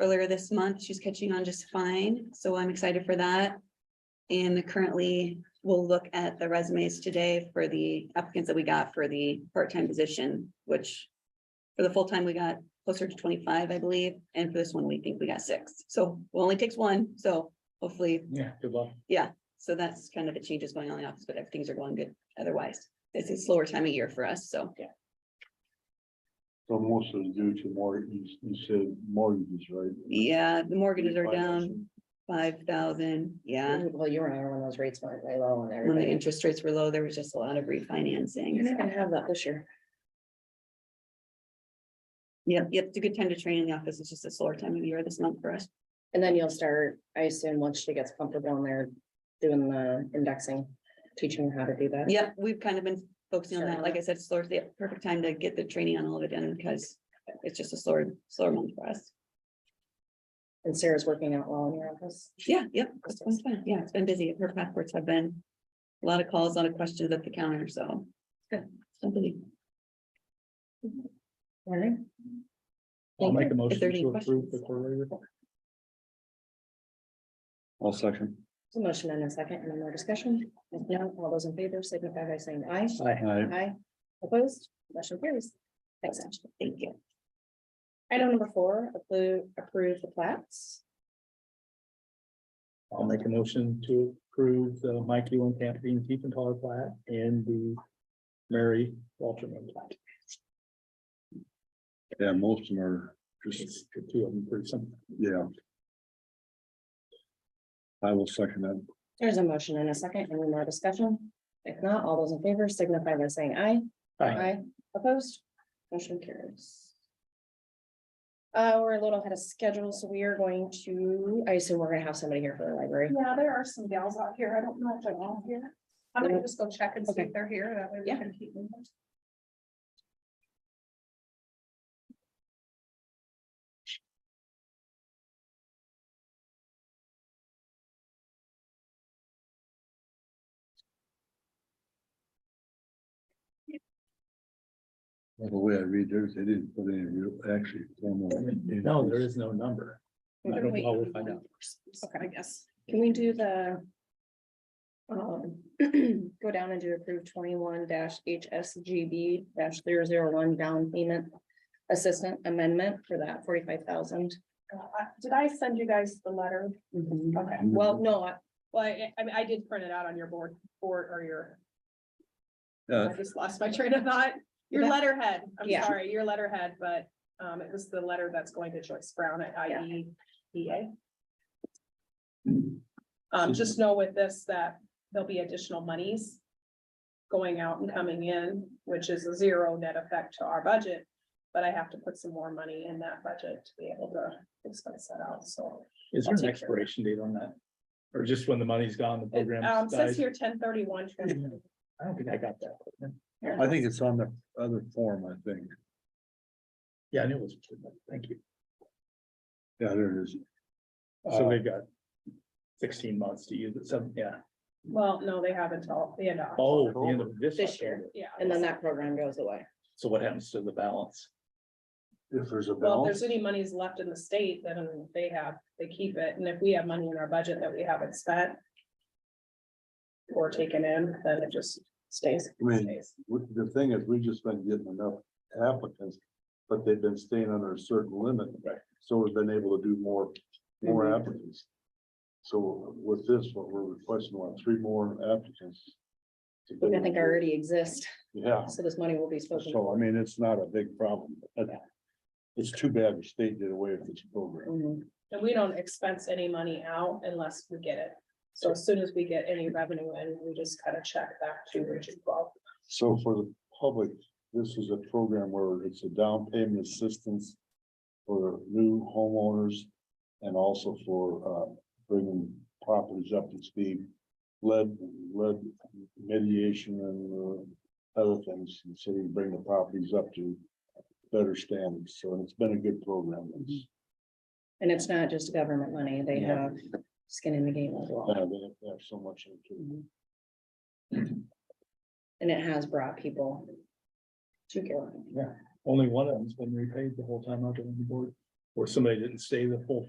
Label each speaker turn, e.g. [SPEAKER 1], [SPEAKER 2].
[SPEAKER 1] earlier this month. She's catching on just fine, so I'm excited for that. And currently, we'll look at the resumes today for the applicants that we got for the part-time position, which for the full-time, we got closer to twenty-five, I believe, and for this one, we think we got six. So it only takes one, so hopefully
[SPEAKER 2] Yeah, good luck.
[SPEAKER 1] so that's kind of the changes going on in the office, but things are going good otherwise. It's a slower time of year for us, so.
[SPEAKER 3] So most of it's due to more, you, you said mortgages, right?
[SPEAKER 1] Yeah, the mortgages are down five thousand, yeah.
[SPEAKER 4] Well, you remember when those rates went way low and
[SPEAKER 1] When the
[SPEAKER 4] everybody.
[SPEAKER 1] interest rates were low, there was just a lot of refinancing.
[SPEAKER 4] You're not
[SPEAKER 1] so-
[SPEAKER 4] gonna have that this year.
[SPEAKER 1] Yep, yep, it's a good time to train in the office. It's just a slower time of year this month for us.
[SPEAKER 4] And then you'll start, I assume, once she gets comfortable in there, doing the indexing, teaching her how to do that.
[SPEAKER 1] Yep, we've kind of been focusing on that.
[SPEAKER 4] Sure.
[SPEAKER 1] Like I said, slower, the perfect time to get the training on all of it done because it's just a slower, slower month for us.
[SPEAKER 4] And Sarah's working out well in your office.
[SPEAKER 1] Yeah, yep, it's been fun. Yeah, it's been busy. Her passports have been a lot of calls, a lot of questions at the counter, so.
[SPEAKER 4] Good.
[SPEAKER 1] Somebody,
[SPEAKER 4] Right.
[SPEAKER 2] I'll make a motion
[SPEAKER 1] If there are any
[SPEAKER 2] to approve the
[SPEAKER 1] questions.
[SPEAKER 2] quarterly report.
[SPEAKER 3] All second.
[SPEAKER 4] So motion and a second, and more discussion. If not, all those in favor signify by saying aye.
[SPEAKER 3] Aye.
[SPEAKER 4] Aye. Opposed, motion carries. Thanks, Ashley.
[SPEAKER 1] thank you.
[SPEAKER 4] Item number four, approve, approve the plats.
[SPEAKER 2] I'll make a motion to approve the Mike Ewan Campaign Tiefenthaler plat and the Mary Walterman plat.
[SPEAKER 3] Yeah, most of them are
[SPEAKER 2] It's
[SPEAKER 3] just,
[SPEAKER 2] the two of them pretty simple.
[SPEAKER 3] yeah. I will second that.
[SPEAKER 4] There's a motion and a second, any more discussion? If not, all those in favor signify by saying aye.
[SPEAKER 2] Aye.
[SPEAKER 4] Aye, opposed, motion carries. Uh, we're a little ahead of schedule, so we are going to, I assume we're gonna have somebody here for the library.
[SPEAKER 5] Yeah, there are some gals out here. I don't know if they're all here. I'm gonna just go check and see
[SPEAKER 4] Okay.
[SPEAKER 5] if they're here. That way we
[SPEAKER 4] Yeah.
[SPEAKER 5] can keep moving.
[SPEAKER 3] By The way I read theirs, they didn't put any real, actually. formal in-
[SPEAKER 2] No, there is no number. I don't know, we'll find out.
[SPEAKER 5] Okay, I guess.
[SPEAKER 4] Can we do the? Um, go down and do approve twenty-one HSGB dash zero zero one down payment. Assistant amendment for that forty-five thousand.
[SPEAKER 5] Uh, I- Did I send you guys the letter?
[SPEAKER 1] Mm-hmm.
[SPEAKER 5] Okay.
[SPEAKER 3] Mm-hmm.
[SPEAKER 4] Well, no, I-
[SPEAKER 5] Well, I, I mean, I did print it out on your board, board or your,
[SPEAKER 3] Uh,
[SPEAKER 5] I just lost my train of thought. Your
[SPEAKER 4] That-
[SPEAKER 5] letterhead, I'm
[SPEAKER 4] Yeah.
[SPEAKER 5] sorry, your letterhead, but, um, it was the letter that's going to Joyce Brown at E IEDA. Um, just know with this that there'll be additional monies going out and coming in, which is a zero net effect to our budget. But I have to put some more money in that budget to be able to expense that out, so.
[SPEAKER 2] Is there an
[SPEAKER 5] I'll take care of it.
[SPEAKER 2] expiration date on that? Or just when the money's gone, the
[SPEAKER 5] It
[SPEAKER 2] program
[SPEAKER 5] um, says
[SPEAKER 2] dies?
[SPEAKER 5] here ten thirty-one.
[SPEAKER 2] I don't think I got that.
[SPEAKER 3] I think it's on the other form, I think.
[SPEAKER 2] Yeah, I knew it was, thank you.
[SPEAKER 3] Yeah, there it is.
[SPEAKER 2] So
[SPEAKER 3] Uh,
[SPEAKER 2] they've got sixteen months to use it, so, yeah.
[SPEAKER 5] Well, no, they have until the end of,
[SPEAKER 2] Oh, the end of this.
[SPEAKER 4] This year.
[SPEAKER 5] yeah.
[SPEAKER 4] and then that program goes away.
[SPEAKER 2] So what happens to the balance?
[SPEAKER 3] If there's a
[SPEAKER 5] Well, if
[SPEAKER 3] balance,
[SPEAKER 5] there's any monies left in the state, then they have, they keep it, and if we have money in our budget that we haven't spent. Or taken in, then it just stays.
[SPEAKER 3] I mean,
[SPEAKER 5] stays.
[SPEAKER 3] we- the thing is, we've just been getting enough applicants, but they've been staying under a certain limit.
[SPEAKER 2] Right.
[SPEAKER 3] So we've been able to do more, more
[SPEAKER 4] Mhm.
[SPEAKER 3] applicants. So with this, what we're requesting, what, three more applicants? to
[SPEAKER 4] Which I
[SPEAKER 3] get-
[SPEAKER 4] think already exist,
[SPEAKER 3] Yeah,
[SPEAKER 4] so this money will be spoken.
[SPEAKER 3] so I mean, it's not a big problem. but It's too bad the state did away with this program.
[SPEAKER 4] Mhm.
[SPEAKER 5] And we don't expense any money out unless we get it. So as soon as we get any revenue in, we just kind of check back to Region twelve.
[SPEAKER 3] So for the public, this is a program where it's a down payment assistance for new homeowners and also for uh bringing properties up to speed. Lead, lead mediation and uh, other things, and so we bring the properties up to better standards. So it's been a good program. It's,
[SPEAKER 4] And it's not just government money, they
[SPEAKER 3] Yeah.
[SPEAKER 4] have skin in the game as well.
[SPEAKER 3] uh, They they have so much. into it.
[SPEAKER 4] And it has brought people to Carolina.
[SPEAKER 2] Only one of them's been repaid the whole time I've been on the board. Or somebody didn't stay the full